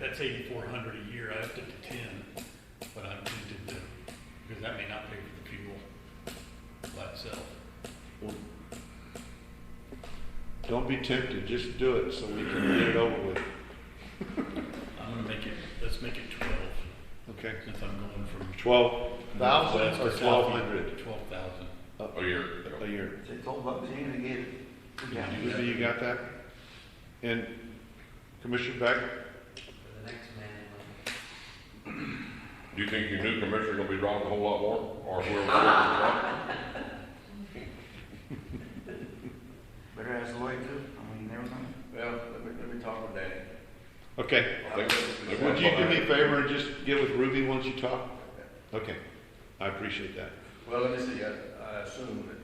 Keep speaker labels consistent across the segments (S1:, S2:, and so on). S1: that's eighty-four hundred a year, I upped it to ten, but I'm tempted to, because that may not pay for the fuel by itself.
S2: Don't be tempted, just do it so we can get it over with,
S1: I'm gonna make it, let's make it twelve,
S2: okay?
S1: since I'm going from.
S2: Twelve thousand or
S1: Northwest to
S2: twelve hundred
S1: Twelve thousand.
S3: Oh, you're,
S2: a year.
S4: They told Buck Zane to get it.
S1: Yeah.
S4: For
S2: Ruby, you got that? And Commissioner Beck,
S4: the next man.
S3: do you think your new commissioner gonna be driving a whole lot more, or whoever?
S4: Better ask Lloyd too. I mean, never mind.
S5: Well, let me, let me talk with Danny.
S2: okay.
S3: I think- I think
S2: Would you do me a
S3: that's-
S2: favor and just get with Ruby once you talk? Okay, I appreciate that.
S5: Well, let me see, I, I assume that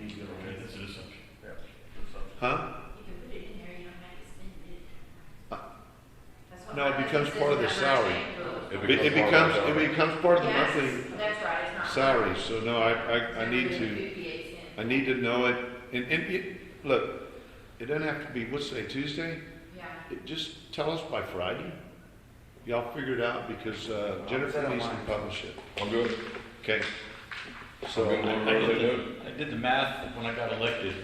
S5: he's gonna
S1: Okay,
S5: win.
S1: that's an assumption.
S5: Yeah, or something.
S2: Huh?
S6: You can put it in there, you don't have to spend it. That's what
S2: No, it
S6: my
S2: becomes
S6: husband
S2: part of
S6: says
S2: the
S6: about my
S2: salary.
S6: bank
S3: It
S6: rules.
S2: Be- It becomes, it becomes part of the
S6: Yes,
S2: monthly
S6: That's right, it's not.
S2: salary, so no, I, I, I need to.
S6: 158 cents.
S2: I need to know it, and, and, it- look, it doesn't have to be, what's today, Tuesday?
S6: Yeah,
S2: It- Just tell us by Friday. Y'all figure it out, because uh, Jennifer needs to publish it,
S3: I'm good,
S2: okay?
S3: I'm
S2: So,
S3: good,
S1: I
S3: whatever they
S1: did
S3: do.
S1: the- I did the math when I got elected,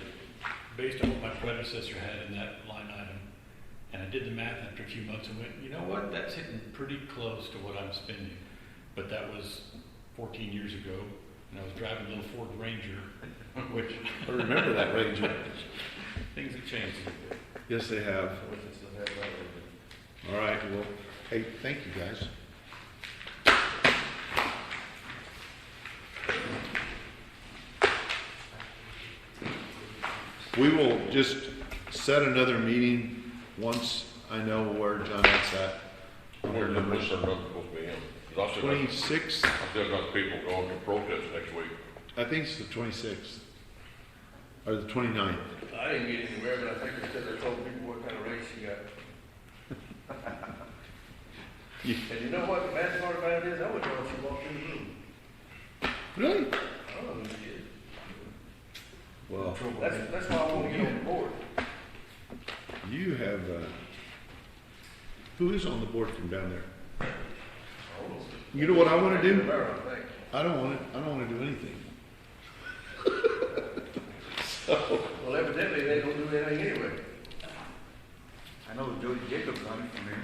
S1: based on what my predecessor had in that line item. And I did the math after a few months and went, you know what, that's hitting pretty close to what I'm spending. But that was fourteen years ago, and I was driving a little Ford Ranger, which,
S2: I remember that, Ranger.
S1: things have changed a little bit.
S2: Yes, they have.
S5: Which is the head level.
S2: All right, well, hey, thank you, guys. We will just set another meeting once I know where John X at.
S3: I
S2: Where
S3: wonder if
S2: numbers
S3: this is not supposed to be in, 'Cause I still got-
S2: Twenty-sixth,
S3: I still got people going to protest next week.
S2: I think it's the twenty-sixth, or the twenty-ninth.
S5: I didn't get anywhere, but I think they said they told people what kind of race you got.
S2: You-
S5: And you know what, the bad part about it is, I would know if you walked in the room.
S2: Really?
S5: I don't know who you is.
S2: Well,
S5: That's, that's why I want to get on board.
S2: you have, uh, who is on the board from down there? You know what I wanna do?
S5: Rivera, I think.
S2: I don't want to, I don't want to do anything.
S5: Well, evidently, they don't do anything anyway.
S4: I know Jody Jacobs on it from here.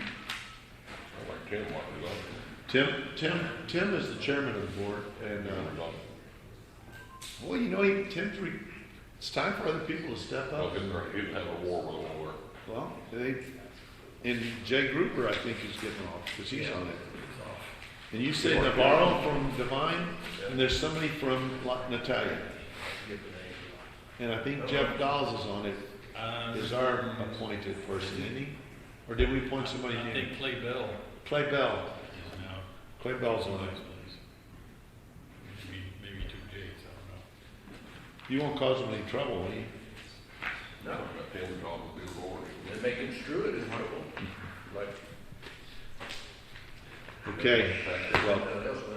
S3: I like Tim, what do
S2: Tim, Tim, Tim is the chairman of the board, and, uh, well, you know, he, Tim's, re- it's time for other people to step
S3: I'll
S2: up.
S3: get there, he'd have a war with the war.
S2: Well, they, and Jay Gruber, I think, is getting off, because he's on it. And you say Navarro from Divine, and there's somebody from La- Natalia, and I think Jeff Dawes is on it,
S1: Um,
S2: is our appointed person, isn't he? Or did we appoint somebody
S1: I
S2: new?
S1: think Clay Bell
S2: Clay Bell,
S1: is now.
S2: Clay Bell's on it.
S1: Maybe, maybe two days, I don't know.
S2: You won't cause him any trouble, will you?
S5: No,
S3: I got Tim talking to the war.
S5: they may construe it as horrible, like
S2: Okay, well,
S5: everyone else